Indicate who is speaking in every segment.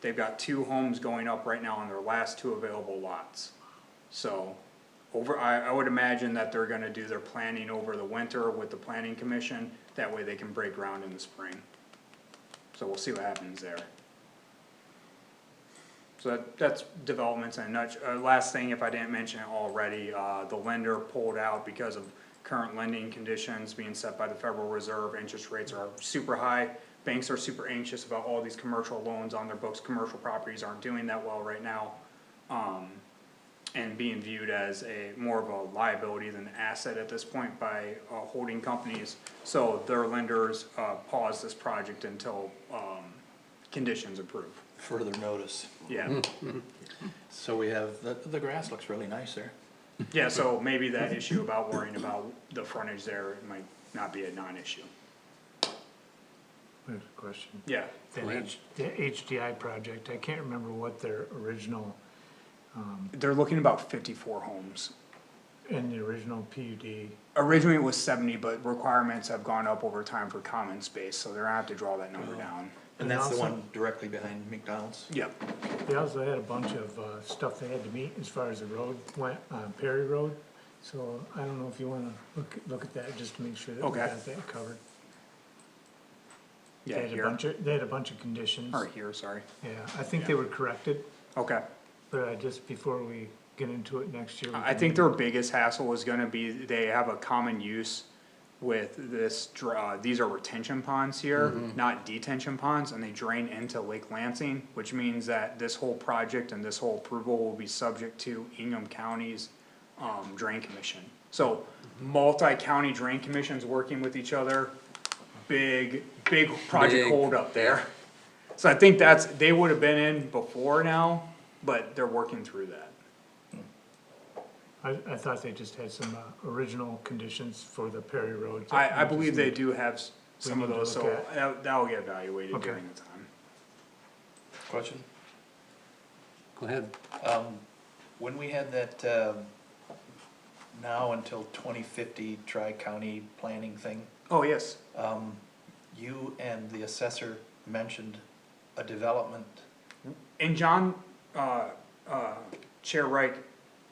Speaker 1: They've got two homes going up right now on their last two available lots. So, over, I, I would imagine that they're gonna do their planning over the winter with the planning commission, that way they can break ground in the spring. So we'll see what happens there. So that, that's developments in a nutsh, uh, last thing, if I didn't mention it already, uh, the lender pulled out because of current lending conditions being set by the Federal Reserve, interest rates are super high. Banks are super anxious about all these commercial loans on their books, commercial properties aren't doing that well right now. Um, and being viewed as a, more of a liability than an asset at this point by, uh, holding companies. So their lenders, uh, paused this project until, um, conditions improve,
Speaker 2: further notice.
Speaker 1: yeah.
Speaker 2: So we have, the, the grass looks really nice there.
Speaker 1: Yeah, so maybe that issue about worrying about the frontage there might not be a non-issue.
Speaker 3: I have a question.
Speaker 1: Yeah,
Speaker 3: That H, the HDI project, I can't remember what their original,
Speaker 1: they're looking about fifty-four homes.
Speaker 3: in the original PUD,
Speaker 1: Originally it was seventy, but requirements have gone up over time for common space, so they're gonna have to draw that number
Speaker 3: Oh.
Speaker 1: down.
Speaker 2: And that's the
Speaker 3: also-
Speaker 2: one directly behind McDonald's.
Speaker 1: Yep,
Speaker 3: they also had a bunch of, uh, stuff they had to meet as far as the road went, uh, Perry Road. So I don't know if you wanna look, look at that just to make sure that we
Speaker 1: Okay.
Speaker 3: got that covered.
Speaker 1: yeah,
Speaker 3: They had a
Speaker 1: here,
Speaker 3: bunch of, they had a bunch of conditions.
Speaker 1: or here, sorry.
Speaker 3: Yeah, I think they were corrected,
Speaker 1: Okay,
Speaker 3: but I just, before we get into it next year. we
Speaker 1: I
Speaker 3: can-
Speaker 1: think their biggest hassle was gonna be, they have a common use with this, dr- uh, these are retention ponds here, not detention ponds, and they drain into Lake Lansing, which means that this whole project and this whole approval will be subject to Ingham County's, um, drain commission. So multi-county drain commissions working with each other, big, big project
Speaker 4: Big.
Speaker 1: hold up there. So I think that's, they would have been in before now, but they're working through that.
Speaker 3: I, I thought they just had some, uh, original conditions for the Perry Road.
Speaker 1: I, I believe they do have s-
Speaker 3: We
Speaker 1: some of
Speaker 3: need to
Speaker 1: those,
Speaker 3: look
Speaker 1: so
Speaker 3: at-
Speaker 1: that, that'll get evaluated
Speaker 3: Okay.
Speaker 1: during the time.
Speaker 2: Question?
Speaker 4: Go ahead.
Speaker 2: Um, when we had that, um, now until twenty fifty tri-county planning thing,
Speaker 1: Oh, yes,
Speaker 2: um, you and the assessor mentioned a development.
Speaker 1: and John, uh, uh, Chair Reich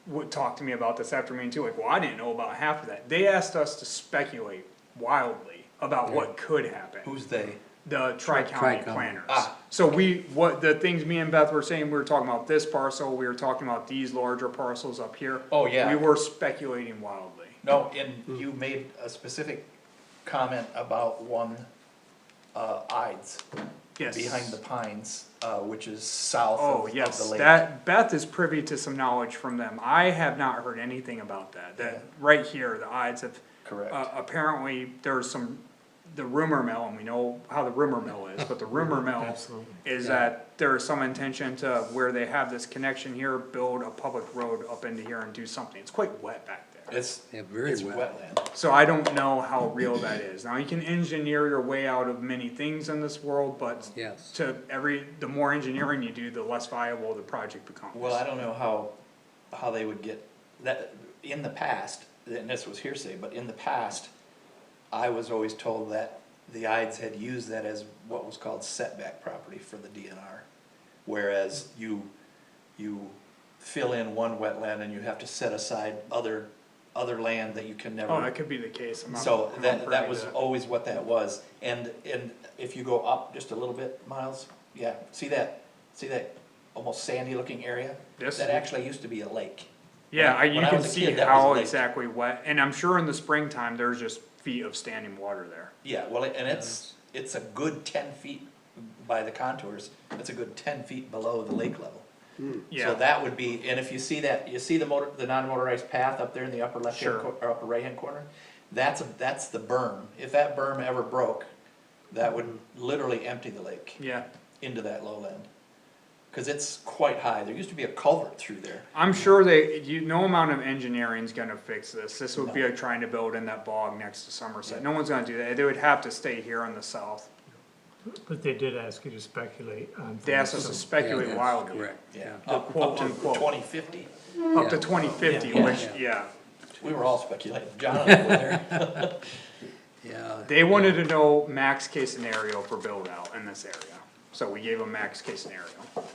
Speaker 1: would talk to me about this after me too, like, well, I didn't know about half of that. They asked us to speculate wildly about what could happen,
Speaker 2: Who's they?
Speaker 1: the tri-county
Speaker 4: Tri-county.
Speaker 1: planners.
Speaker 2: Ah.
Speaker 1: So we, what, the things me and Beth were saying, we were talking about this parcel, we were talking about these larger parcels up here.
Speaker 2: Oh, yeah.
Speaker 1: We were speculating wildly.
Speaker 2: No, and you made a specific comment about one, uh, Ides
Speaker 1: Yes.
Speaker 2: behind the pines, uh, which is south of of the
Speaker 1: Oh,
Speaker 2: lake.
Speaker 1: yes, that, Beth is privy to some knowledge from them, I have not heard anything about that, that, right here, the odds have.
Speaker 2: Correct.
Speaker 1: Uh, apparently, there's some, the rumor mill, and we know how the rumor mill is, but the rumor mill
Speaker 3: Absolutely.
Speaker 1: is that there is some intention to, where they have this connection here, build a public road up into here and do something, it's quite wet back there.
Speaker 2: It's,
Speaker 4: Yeah, very
Speaker 2: it's
Speaker 4: well.
Speaker 2: wetland.
Speaker 1: So I don't know how real that is. Now, you can engineer your way out of many things in this world, but
Speaker 4: Yes.
Speaker 1: to every, the more engineering you do, the less viable the project becomes.
Speaker 2: Well, I don't know how, how they would get, that, in the past, and this was hearsay, but in the past, I was always told that the Ides had used that as what was called setback property for the DNR. Whereas you, you fill in one wetland and you have to set aside other, other land that you can never.
Speaker 1: Oh, that could be the case. I'm not-
Speaker 2: So
Speaker 1: I'm not
Speaker 2: that,
Speaker 1: privy
Speaker 2: that
Speaker 1: to
Speaker 2: was always what that was, and, and if you go up just a little bit, Miles, yeah, see that, see that almost sandy looking area?
Speaker 1: Yes.
Speaker 2: That actually used to be a lake.
Speaker 1: Yeah, I- you
Speaker 2: when I
Speaker 1: can
Speaker 2: was a
Speaker 1: see
Speaker 2: kid, that was
Speaker 1: how
Speaker 2: like-
Speaker 1: exactly wet, and I'm sure in the springtime, there's just feet of standing water there.
Speaker 2: Yeah, well, and it's, it's a good ten feet by the contours, it's a good ten feet below the lake level. So
Speaker 1: Yeah,
Speaker 2: that would be, and if you see that, you see the motor, the non-motorized path up there in the upper left hand,
Speaker 1: Sure.
Speaker 2: cor- or upper right hand corner? That's, a- that's the berm, if that berm ever broke, that would literally empty the lake.
Speaker 1: yeah.
Speaker 2: into that lowland. Cause it's quite high, there used to be a culvert through there.
Speaker 1: I'm sure they, you, no amount of engineering's gonna fix this. This would be like trying to build in that bog next to Somerset. No one's gonna do that. They would have to stay here in the south.
Speaker 3: But they did ask you to speculate on.
Speaker 1: They asked us
Speaker 3: things.
Speaker 1: to
Speaker 4: Yeah,
Speaker 1: speculate
Speaker 4: that's
Speaker 1: wildly.
Speaker 4: Correct.
Speaker 2: Up, up
Speaker 1: quote
Speaker 2: to
Speaker 1: unquote.
Speaker 2: twenty fifty,
Speaker 1: Up to
Speaker 4: Yeah.
Speaker 1: twenty fifty,
Speaker 2: Yeah.
Speaker 1: which, yeah,
Speaker 2: we were all speculating, John and I were there.
Speaker 4: Yeah.
Speaker 1: they wanted to know max case scenario for build out in this area. So we gave a max case scenario.